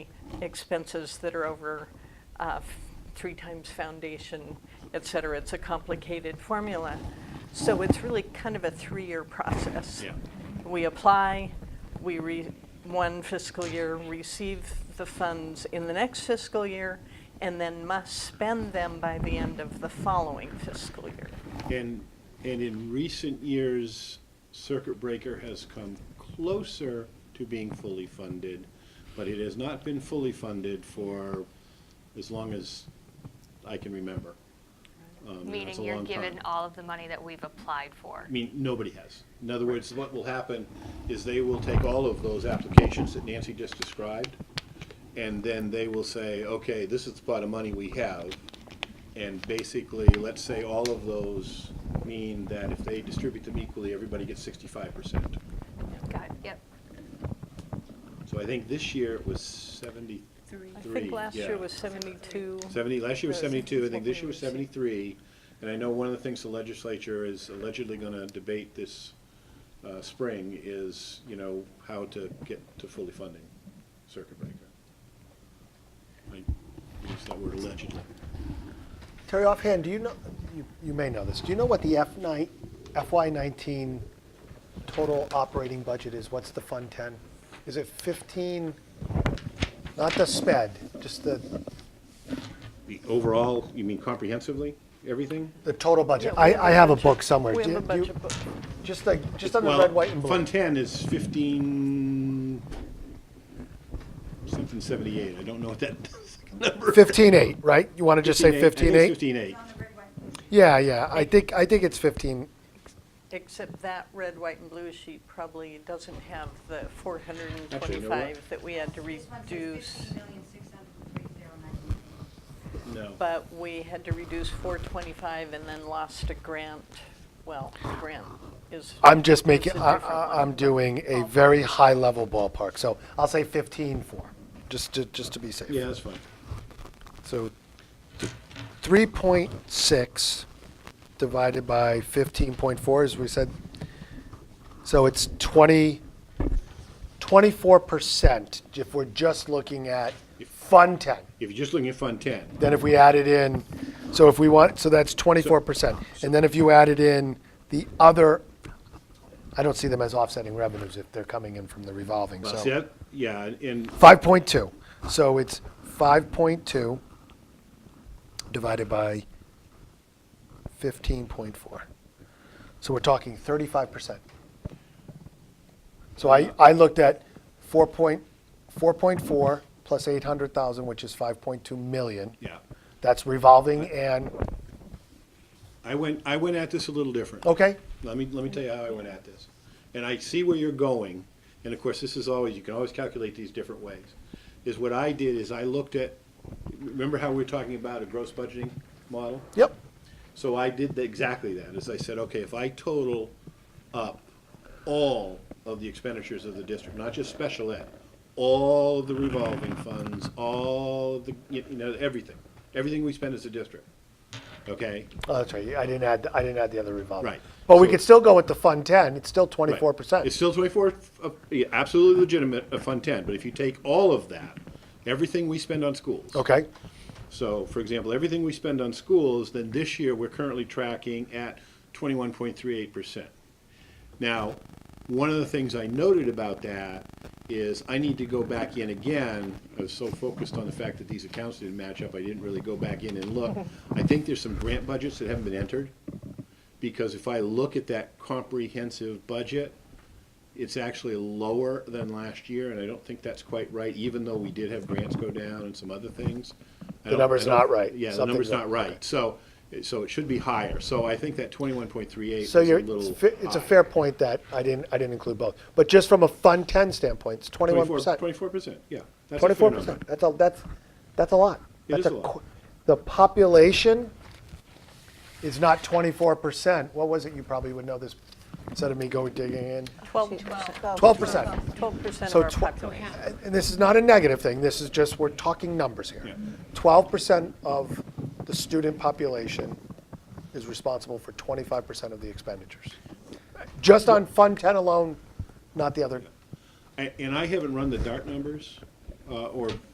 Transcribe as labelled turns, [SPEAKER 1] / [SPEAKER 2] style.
[SPEAKER 1] expenses that are over uh, f- three times foundation, et cetera. It's a complicated formula. So it's really kind of a three-year process.
[SPEAKER 2] Yeah.
[SPEAKER 1] We apply, we re, one fiscal year, receive the funds in the next fiscal year, and then must spend them by the end of the following fiscal year.
[SPEAKER 2] And, and in recent years, Circuit Breaker has come closer to being fully funded, but it has not been fully funded for as long as I can remember. Um, and that's a
[SPEAKER 3] Meaning you're
[SPEAKER 2] long time.
[SPEAKER 3] given all of the money that we've applied for.
[SPEAKER 2] I mean, nobody has. In other words, what will happen is they will take all of those applications that Nancy just described, and then they will say, okay, this is the pot of money we have. And basically, let's say all of those mean that if they distribute them equally, everybody gets sixty-five percent.
[SPEAKER 3] Got it, yep.
[SPEAKER 2] So I think this year it was seventy-three.
[SPEAKER 1] I think last year
[SPEAKER 2] yeah.
[SPEAKER 1] was 72.
[SPEAKER 2] 70, last year was
[SPEAKER 1] Yes.
[SPEAKER 2] 72, I think this year was
[SPEAKER 1] That's what we
[SPEAKER 2] 73. And I know one of the things the legislature is allegedly going to debate this uh, spring is, you know, how to get to fully funding circuit breaker. I use that word allegedly.
[SPEAKER 4] Terry, offhand, do you know, you, you may know this, do you know what the F nine, FY nineteen total operating budget is? What's the Fund Ten? Is it fifteen, not the sped, just the,
[SPEAKER 2] The overall, you mean comprehensively, everything?
[SPEAKER 4] the total budget?
[SPEAKER 1] Yeah, we
[SPEAKER 4] I,
[SPEAKER 1] have a
[SPEAKER 4] I have a
[SPEAKER 1] budget.
[SPEAKER 4] book somewhere.
[SPEAKER 1] We have
[SPEAKER 4] Do
[SPEAKER 1] a
[SPEAKER 4] you-
[SPEAKER 1] budget book.
[SPEAKER 4] Just like, just under
[SPEAKER 2] Well,
[SPEAKER 4] red, white, and blue.
[SPEAKER 2] Fund 10 is 15, something 78, I don't know what that number is.
[SPEAKER 4] Fifteen eight, right? You want to just say fifteen eight?
[SPEAKER 2] 15.8.
[SPEAKER 4] Yeah, yeah, I think, I think it's fifteen.
[SPEAKER 1] Except that red, white, and blue sheet probably doesn't have the
[SPEAKER 2] Actually, you know what?
[SPEAKER 1] 425 that we had to
[SPEAKER 5] This one says
[SPEAKER 1] reduce,
[SPEAKER 5] 15,603,090.
[SPEAKER 2] No.
[SPEAKER 1] but we had to reduce 425 and then lost a grant. Well, the grant is.
[SPEAKER 4] I'm just making,
[SPEAKER 1] is a
[SPEAKER 4] I,
[SPEAKER 1] different
[SPEAKER 4] I-
[SPEAKER 1] one.
[SPEAKER 4] I'm doing a very high level ballpark, so I'll say fifteen four, just to, just to be safe.
[SPEAKER 2] Yeah, that's fine.
[SPEAKER 4] So three point six divided by fifteen point four, as we said, so it's twenty, twenty-four percent if we're just looking at Fund Ten.
[SPEAKER 2] If you're just looking at Fund 10,
[SPEAKER 4] Then if we added in, so if we want, so that's twenty-four percent. And then if you added in the other, I don't see them as offsetting revenues if they're coming in from the revolving,
[SPEAKER 2] well,
[SPEAKER 4] so.
[SPEAKER 2] see that, yeah, and,
[SPEAKER 4] Five point two. So it's five point two divided by fifteen point four. So we're talking thirty-five percent. So I, I looked at four point, four point four plus eight hundred thousand, which is five point two million.
[SPEAKER 2] yeah.
[SPEAKER 4] That's revolving and,
[SPEAKER 2] I went, I went at this a little different.
[SPEAKER 4] okay,
[SPEAKER 2] Let me, let me tell you how I went at this. And I see where you're going, and of course, this is always, you can always calculate these different ways. Is what I did is I looked at, remember how we were talking about a gross budgeting model?
[SPEAKER 4] yep,
[SPEAKER 2] So I did the- exactly that, is I said, okay, if I total up all of the expenditures of the district, not just special ed, all of the revolving funds, all of the, you know, everything, everything we spend as a district, okay?
[SPEAKER 4] oh, that's right, I didn't add, I didn't add the other revolving.
[SPEAKER 2] Right.
[SPEAKER 4] But we
[SPEAKER 2] So-
[SPEAKER 4] could still go with the Fund Ten, it's still
[SPEAKER 2] Right.
[SPEAKER 4] twenty-four
[SPEAKER 2] It's
[SPEAKER 4] percent.
[SPEAKER 2] still twenty-four, uh, yeah, absolutely legitimate, a Fund Ten, but if you take all of that, everything we spend on schools.
[SPEAKER 4] Okay,
[SPEAKER 2] So, for example, everything we spend on schools, then this year, we're currently tracking at twenty-one point three eight percent. Now, one of the things I noted about that is I need to go back in again. I was so focused on the fact that these accounts didn't match up, I didn't really go back in and look. I think there's some grant budgets that haven't been entered, because if I look at that comprehensive budget, it's actually lower than last year, and I don't think that's quite right, even though we did have grants go down and some other things. I
[SPEAKER 4] The
[SPEAKER 2] don't-
[SPEAKER 4] number's
[SPEAKER 2] I don't-
[SPEAKER 4] not right.
[SPEAKER 2] Yeah, the
[SPEAKER 4] Something's
[SPEAKER 2] number's
[SPEAKER 4] up.
[SPEAKER 2] not right. So, so it should be higher. So I think that twenty-one point three eight is
[SPEAKER 4] So
[SPEAKER 2] a
[SPEAKER 4] you're,
[SPEAKER 2] little.
[SPEAKER 4] it's fa- it's a
[SPEAKER 2] high.
[SPEAKER 4] fair point that I didn't, I didn't include both. But just from a Fund 10 standpoint, it's 21%.
[SPEAKER 2] Twenty-four percent, yeah. That's a fair
[SPEAKER 4] 24%.
[SPEAKER 2] number.
[SPEAKER 4] That's a, that's, that's a lot.
[SPEAKER 2] It
[SPEAKER 4] That's
[SPEAKER 2] is a lot.
[SPEAKER 4] qu- The population is not 24%. What was it? You probably would know this instead of me going digging in.
[SPEAKER 1] 12%.
[SPEAKER 4] 12%.
[SPEAKER 1] 12% of
[SPEAKER 4] So
[SPEAKER 1] our
[SPEAKER 4] tw-
[SPEAKER 1] population.
[SPEAKER 4] And and this is not a negative thing, this is just, we're talking numbers
[SPEAKER 2] Yeah.
[SPEAKER 4] here. Twelve percent of the student population is responsible for twenty-five percent of the expenditures. Just on Fund Ten alone, not the other
[SPEAKER 2] A- And I haven't run the DART numbers, uh, or